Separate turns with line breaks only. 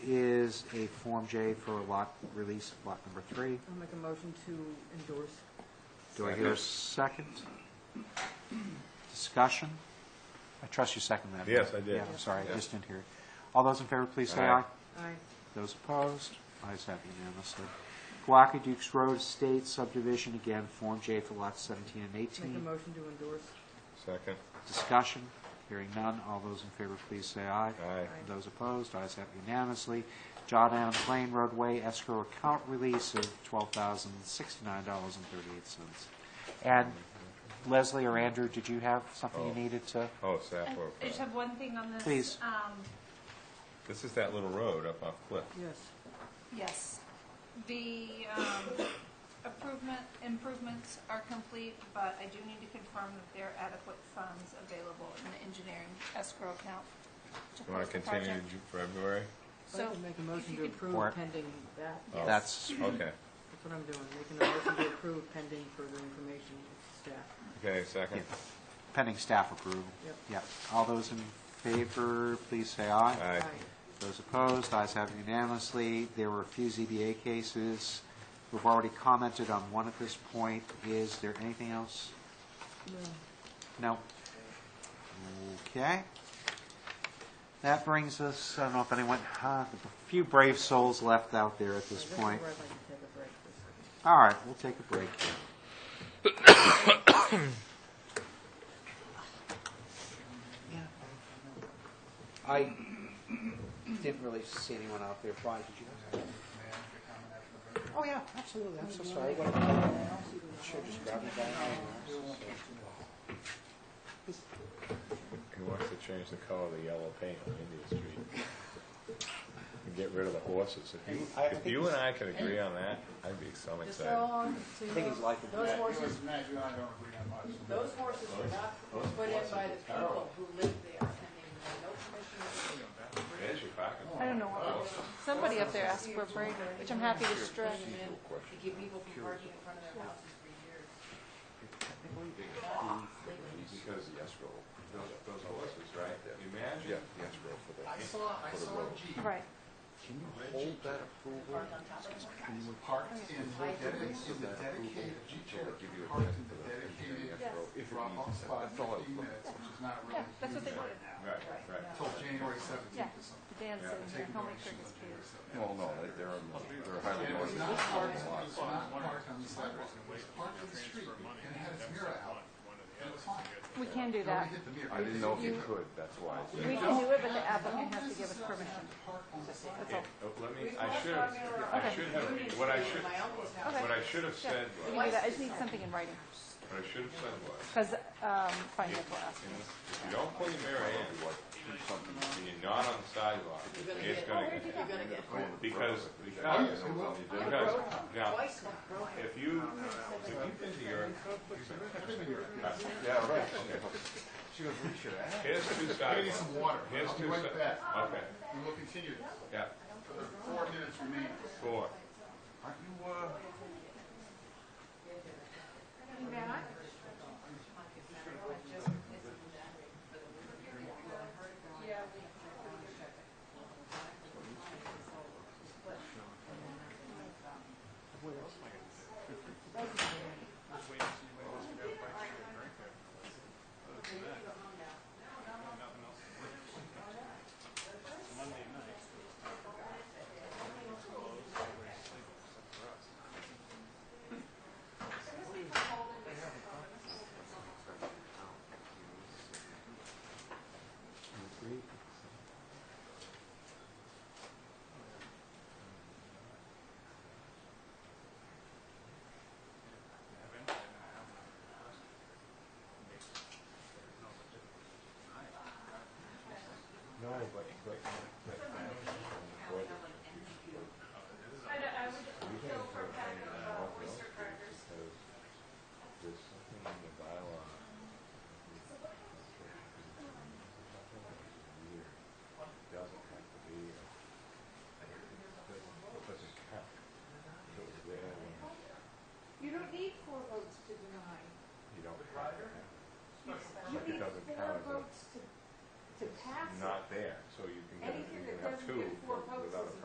is a Form J for lot release, lot number three.
I'll make a motion to endorse.
Do I hear a second? Discussion? I trust you seconded that.
Yes, I did.
Yeah, I'm sorry, I
Yeah.
just didn't hear it. All those in favor, please say aye.
Aye.
Aye.
Those opposed? Ayes have unanimously. Guaca Dukes Road Estate subdivision, again, Form J for lots 17 and
Make a
18.
motion to endorse.
Second.
Discussion? Hearing none. All those in favor, please say aye.
Aye.
Those opposed? Ayes have unanimously. John Allen Plain roadway escrow account release of $12,069.38. And Leslie or Andrew, did you have something
Oh.
you needed to?
Oh, Sappho.
Uh, I just have one thing on this.
Please.
Um,
This is that little road up off Cliff.
Yes.
Yes. The um, improvement, improvements are complete, but I do need to confirm that there are adequate funds available in the engineering escrow account to
You want
close
to
the
continue to
project.
Ju- February?
So
So,
make a
if
motion
you
to
could-
Or-
approve pending that.
Oh.
Yes,
That's,
Okay,
that's what I'm doing, making a motion to approve pending further information with staff.
okay, second.
Yeah. pending staff approval.
Yep.
Yep. All those in favor, please say aye.
Aye.
Those opposed, ayes have unanimously. There were a few ZBA cases. We've already commented on one at this point. Is there anything else? No? Okay. That brings us, I don't know if anyone, huh, a few brave souls left out there at this point.
I'd like to take a break for a
All
second.
right, we'll take a break here. I didn't really see anyone out there. Brian, did you? Oh, yeah, absolutely. I'm so sorry. What Should just grab it back.
He wants to change the color of the yellow paint on India Street. And get rid of the horses. If you,
I- I
if
think
you and I could agree on that, I'd be so excited.
I think he's liking
Those
that.
horses,
Matt, you and I don't agree on much.
those horses were not put in by the people who lived there, and they had no permission.
There's your pocket.
I don't know what we're doing. Somebody up there asked for a break, which I'm happy to stretch.
To keep people from parking in front of their houses for years.
Because the escrow, those, those horses, right? Imagine.
I saw, I saw a Jeep
Right.
Parked on top of them.
parked in the dedicated, in the dedicated, Jeep Cherokee parked in the dedicated drop-off spot in fifteen minutes, which is not really.
Yeah, that's what they
used
wanted.
Right, right.
Until January seventeenth
Yeah.
or something.
The dance and
Taking
homemade
directions
cookies.
on January 17th.
Well, no, they- they're, in the- they're highly
And it was
noisy.
not parked, it was not parked on the sidewalk, it was parked in the street, and it had its mirror out, and it was fine.
We can do
It only
that.
hit the mirror.
I didn't know if you could, that's why. I
We
said-
can do it, but the applicant has to give us permission.
Parked on the sidewalk.
That's all.
Oh, Let me, I should have, I should have, what I should,
Okay.
what I should have said
We
was,
can do that. I just need something in writing,
what I should have said was,
because, um, finance will ask. me.
if you don't pull your mirror in, and you're not on the sidewalk, it's gonna get hit.
Oh,
Because, because, because, now, if you, if you've been to Europe,
Yeah, right.
here's two
I need
sidewalks.
some water.
Here's
I'll be
two
right
sidewalks.
back.
Okay,
We will continue this.
yeah,
Four minutes remaining.
four.
Aren't you, uh,
No, but, but, but. There's something in the bylaw. Doesn't have to be. Doesn't count. It was there when
You don't need four votes to deny.
you don't have to have it. Like it doesn't count as a-
to pass
not there, so you can get, you can have two without a